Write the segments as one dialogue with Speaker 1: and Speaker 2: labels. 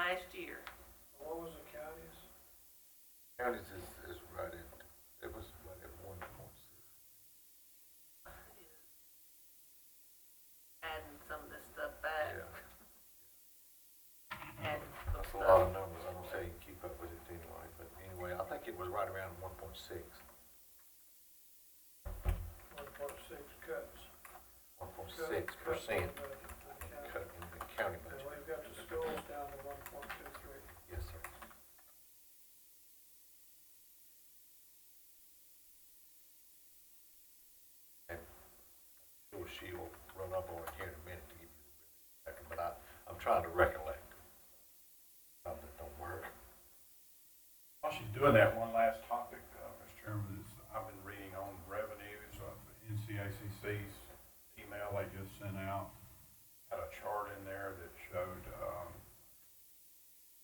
Speaker 1: last year.
Speaker 2: What was the county's?
Speaker 3: Counties is, is right at, it was right at one point six.
Speaker 1: Adding some of this stuff back,
Speaker 3: Yeah,
Speaker 1: adding some
Speaker 3: that's a lot of
Speaker 1: stuff.
Speaker 3: numbers. I don't say you keep up with it anyway, but anyway, I think it was right around one point six.
Speaker 2: One point six cuts.
Speaker 3: One point
Speaker 2: Cut-
Speaker 3: six
Speaker 2: cut
Speaker 3: percent
Speaker 2: in the- the county.
Speaker 3: cut in the county
Speaker 2: And
Speaker 3: budget.
Speaker 2: we've got the schools down to one point two three.
Speaker 3: Yes, sir. And sure she will run up on it here in a minute to give you the second, but I, I'm trying to recollect. Something that don't work.
Speaker 4: While she's doing that, one last topic, uh, Mr. Chairman, is I've been reading on revenues, uh, NCACC's email they just sent out, had a chart in there that showed, um,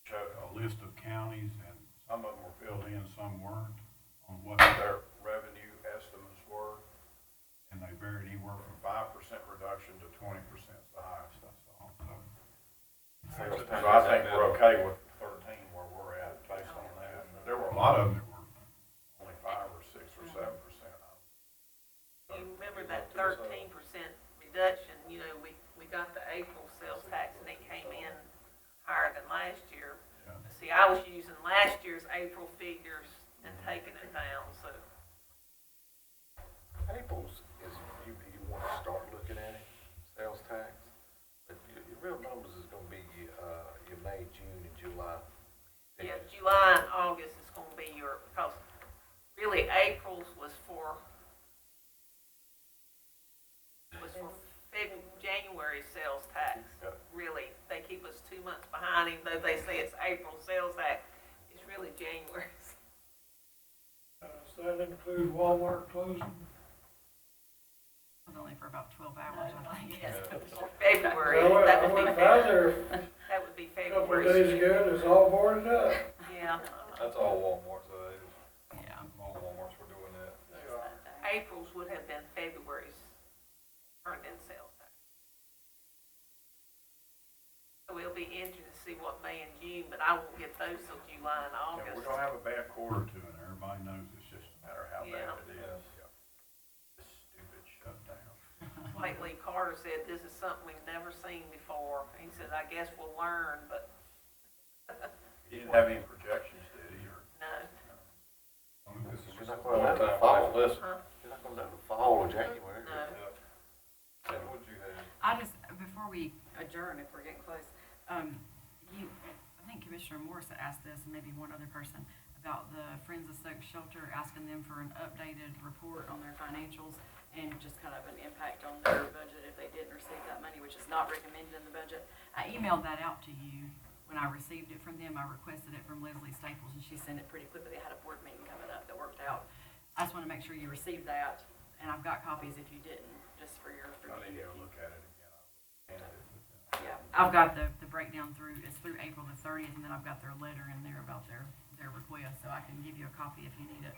Speaker 4: showed a list of counties, and some of them were filled in, some weren't, on what their revenue estimates were, and they varied anywhere from five percent reduction to twenty percent, the highest I saw, so. So I think we're okay with thirteen where we're at based on that. There were a lot of them that were only five or six or seven percent.
Speaker 1: You remember that thirteen percent reduction, you know, we, we got the April sales tax and it came in higher than last year.
Speaker 4: Yeah.
Speaker 1: See, I was using last year's April figures and
Speaker 3: Mm-hmm.
Speaker 1: taking it down, so,
Speaker 3: April's is, you, you wanna start looking at it, sales tax, but your, your real numbers is gonna be, uh, your May, June, and July.
Speaker 1: yeah, July and August is gonna be your, because really April's was for, was for Feb, January sales tax.
Speaker 3: Yeah.
Speaker 1: really, they keep us two months behind, even though they say it's April sales act, it's really January.
Speaker 2: Uh, does that include Walmart closing?
Speaker 5: Only for about twelve hours, I think.
Speaker 1: Or February,
Speaker 2: Well,
Speaker 1: that
Speaker 2: I
Speaker 1: would be
Speaker 2: went by
Speaker 1: February,
Speaker 2: there
Speaker 1: that would be
Speaker 2: a couple of days
Speaker 1: February.
Speaker 2: ago, and it's all boarded up.
Speaker 1: Yeah,
Speaker 6: That's all Walmart's, uh,
Speaker 5: Yeah.
Speaker 6: all Walmart's were doing that.
Speaker 2: They are.
Speaker 1: April's would have been February's earned in sales tax. So it'll be interesting to see what May and June, but I won't get those till July and
Speaker 4: Yeah,
Speaker 1: August.
Speaker 4: we're gonna have a bad quarter to it, everybody knows it's just a matter of how bad
Speaker 1: Yeah.
Speaker 4: it is. This stupid shutdown.
Speaker 1: Like Lee Carter said, this is something we've never seen before, he said, I guess we'll learn, but
Speaker 4: He didn't have any projections, did he, or?
Speaker 1: no.
Speaker 4: I mean, this is
Speaker 3: You're
Speaker 4: just-
Speaker 3: not
Speaker 6: One
Speaker 3: gonna let
Speaker 6: time,
Speaker 3: it
Speaker 6: I
Speaker 3: fall,
Speaker 6: was listening.
Speaker 3: you're not gonna let it fall in January.
Speaker 1: No.
Speaker 6: Ted, what'd you have?
Speaker 5: I just, before we adjourn, if we're getting close, um, you, I think Commissioner Morris had asked this, and maybe one other person, about the Friends of Soak Shelter, asking them for an updated report on their financials and just kind of an impact on their budget if they didn't receive that money, which is not recommended in the budget. I emailed that out to you when I received it from them. I requested it from Leslie Staples, and she sent it pretty quickly. They had a board meeting coming up that worked out. I just want to make sure you received that, and I've got copies if you didn't, just for your
Speaker 4: I need to
Speaker 5: review.
Speaker 4: go look at it again. And it-
Speaker 5: Yeah, I've got the, the breakdown through, it's through April the thirtieth, and then I've got their letter in there about their, their request, so I can give you a copy if you need it.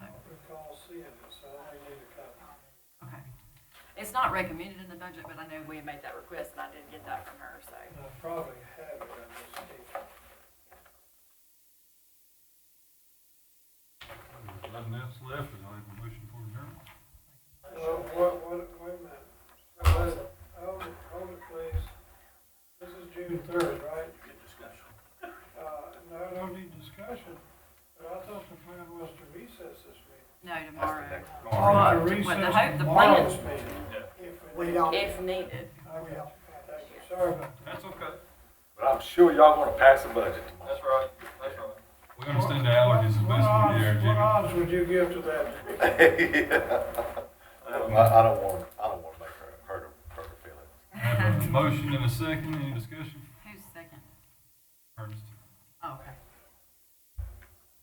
Speaker 2: I don't recall seeing it, so I may need a copy.
Speaker 5: Okay. It's not recommended in the budget, but I know we made that request, and I did get that from her, so.
Speaker 2: And I probably have it, I just need it.
Speaker 7: Nothing else left, and I have a motion for adjournment.
Speaker 2: Well, what, what, wait a minute. Hold it, hold it, hold it, please. This is June third, right?
Speaker 4: Good discussion.
Speaker 2: Uh, no, no need discussion, but I thought the plan was to recess this meeting.
Speaker 5: No, tomorrow,
Speaker 2: Or
Speaker 5: What,
Speaker 2: to
Speaker 5: Oh, the
Speaker 2: recess
Speaker 5: hope- the
Speaker 2: tomorrow's
Speaker 5: plan-
Speaker 2: meeting.
Speaker 8: We don't.
Speaker 5: if needed.
Speaker 2: Okay, thank you, sorry about that.
Speaker 7: That's okay.
Speaker 3: But I'm sure y'all gonna pass a budget tomorrow.
Speaker 6: That's right, that's right.
Speaker 7: We understand the allergies as
Speaker 2: What
Speaker 7: best we
Speaker 2: odds-
Speaker 7: can,
Speaker 2: What
Speaker 7: Jimmy.
Speaker 2: odds would you give to that?
Speaker 3: I don't I don't want, I don't want to make her, hurt her, hurt her feelings.
Speaker 7: Have a Motion and a second, any discussion?
Speaker 5: Who's second?
Speaker 7: Ernest,
Speaker 5: Oh, okay.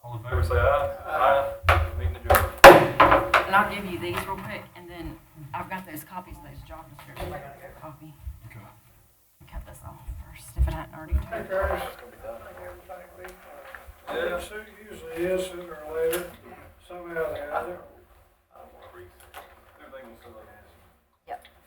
Speaker 7: all in
Speaker 6: Favor
Speaker 7: favor?
Speaker 6: say aye. Aye. Meeting adjourned.
Speaker 5: And I'll give you these real quick, and then I've got those copies, of those job descriptions, I gotta go copy.
Speaker 7: Okay.
Speaker 5: Cut this off first, if it hadn't already.
Speaker 1: Oh
Speaker 2: Hey, Curtis. Everything be fine. It su- usually is sooner or